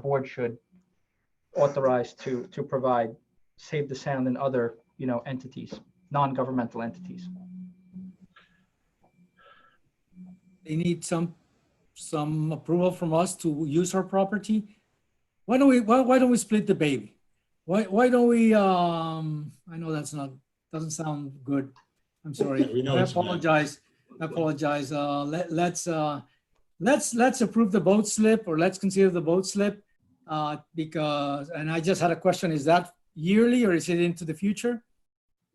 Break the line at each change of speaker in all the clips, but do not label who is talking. board should authorize to, to provide Save the Sound and other, you know, entities, non-governmental entities.
they need some, some approval from us to use our property. Why don't we, why, why don't we split the baby? Why, why don't we, um, I know that's not, doesn't sound good. I'm sorry.
We know
I
it's not.
apologize. I apologize. Uh, let, let's, uh, let's, let's approve the boat slip or let's consider the boat slip. Uh, because, and I just had a question, is that yearly or is it into the future?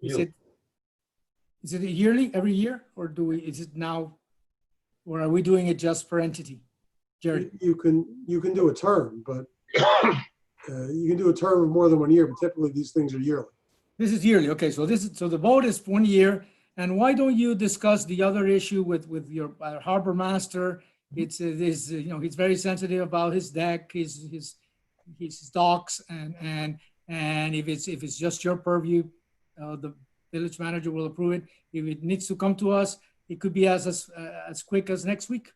Is
You.
it, is it yearly, every year, or do we, is it now or are we doing it just per entity? Jerry,
You you can, you can do a term, but uh, you can do a term of more than one year, but typically these things are yearly.
this is yearly. Okay, so this is, so the vote is one year. And why don't you discuss the other issue with, with your uh, harbor master? It's, uh, this, uh, you know, he's very sensitive about his deck, his, his, his docks and, and, and if it's, if it's just your purview, uh, the village manager will approve it. If it needs to come to us, it could be as, as, uh, as quick as next week.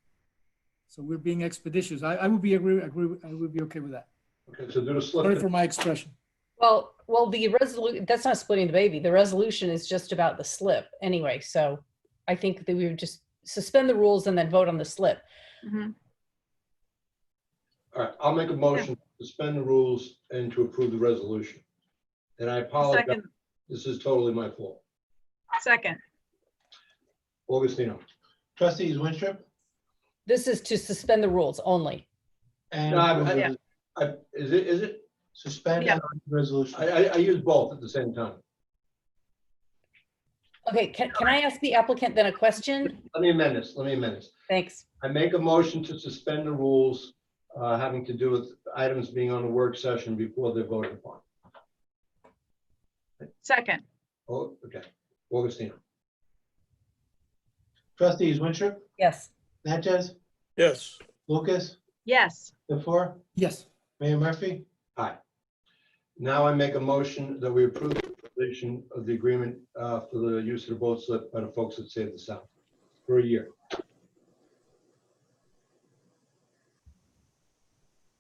So we're being expeditious. I, I would be agree, agree, I would be okay with that.
Okay, so do the slip.
Sorry for my expression.
Well, well, the resolution, that's not splitting the baby. The resolution is just about the slip anyway. So I think that we would just suspend the rules and then vote on the slip.
Mhm.
All right, I'll make a motion to suspend the rules and to approve the resolution. And I apologize,
Second,
this is totally my fault.
second,
Augustino.
Trustees Winstrup
This is to suspend the rules only.
and
No, I-
Yeah.
I- I- Is it, is it?
suspend
Yeah.
and on the resolution.
I, I, I use both at the same time.
Okay, can, can I ask the applicant then a question?
Let me amend this, let me amend this.
Thanks.
I make a motion to suspend the rules uh, having to do with items being on a work session before they're voted upon.
second,
Oh, okay. Augustino.
Trustees Winstrup,
Yes.
Natchez,
yes.
Lucas,
yes,
the four,
Yes.
Mayor Murphy?
Now I make a motion that we approve the provision of the agreement uh, for the use of the boat slip by the folks that Save the Sound for a year.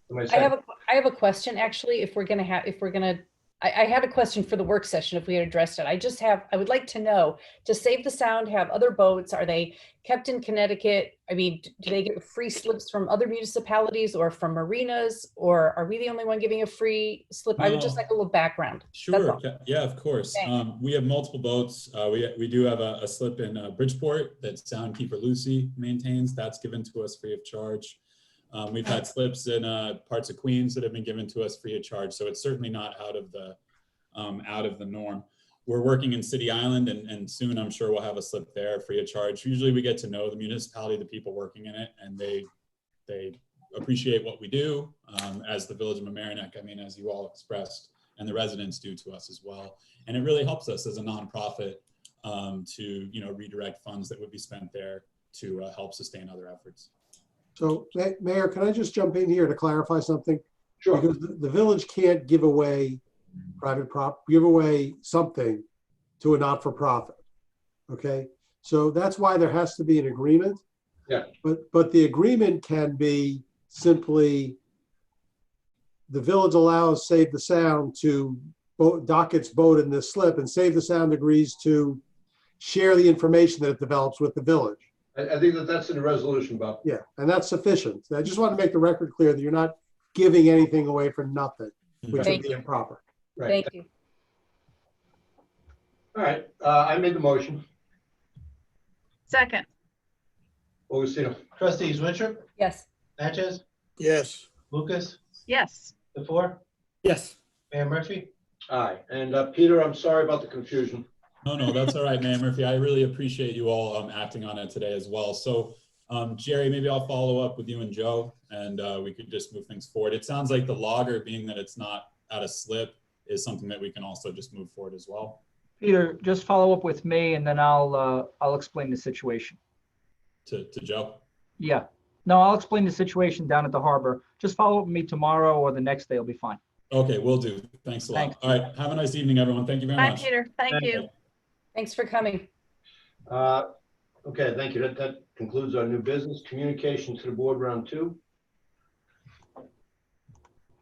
Am
I have
second?
a, I have a question, actually, if we're gonna have, if we're gonna, I, I had a question for the work session, if we had addressed it. I just have, I would like to know, to save the sound, have other boats, are they kept in Connecticut? I mean, d- do they get free slips from other municipalities or from marinas? Or are we the only one giving a free slip? I would just
No.
like a little background.
Sure,
all.
ca- yeah, of course.
Thanks.
Um, we have multiple boats. Uh, we, we do have a, a slip in uh, Bridgeport that Soundkeeper Lucy maintains. That's given to us free of charge. Um, we've had slips in, uh, parts of Queens that have been given to us free of charge. So it's certainly not out of the, um, out of the norm. We're working in City Island and, and soon I'm sure we'll have a slip there free of charge. Usually we get to know the municipality, the people working in it, and they, they appreciate what we do, um, as the Village of Mamaroneck, I mean, as you all expressed and the residents do to us as well. And it really helps us as a nonprofit um, to you know redirect funds that would be spent there to uh, help sustain other efforts.
So, Ma- Mayor, can I just jump in here to clarify something?
Sure,
Because the the village can't give away private prop, give away something to a not-for-profit. Okay, so that's why there has to be an agreement.
Yeah.
But, but the agreement can be simply the village allows Save the Sound to bo- dock its boat in this slip and Save the Sound agrees to share the information that it develops with the village.
I, I think that that's in the resolution, Bob.
Yeah, and that's sufficient. I just want to make the record clear that you're not giving anything away for nothing, which would
Thank
be
you.
improper.
Right,
Thank you.
all right, uh, I made the motion,
second,
Augustino.
Trustees Winstrup,
Yes.
Natchez,
Yes.
Lucas,
yes,
the four,
Yes.
Mayor Murphy?
Aye, and uh, Peter, I'm sorry about the confusion.
No, no, that's all right, Mayor Murphy. I really appreciate you all um, acting on it today as well. So, um, Jerry, maybe I'll follow up with you and Joe, and uh, we could just move things forward. It sounds like the logger, being that it's not at a slip, is something that we can also just move forward as well.
Peter, just follow up with me and then I'll, uh, I'll explain the situation.
To, to Joe.
Yeah, no, I'll explain the situation down at the harbor. Just follow up with me tomorrow or the next day will be fine.
Okay, we'll do. Thanks a lot.
Thanks.
All right, have a nice evening, everyone. Thank you very
bye,
much.
Peter, thank you.
Thanks for coming.
Uh, Okay, thank you, that, that concludes our new business, communication to the board round two.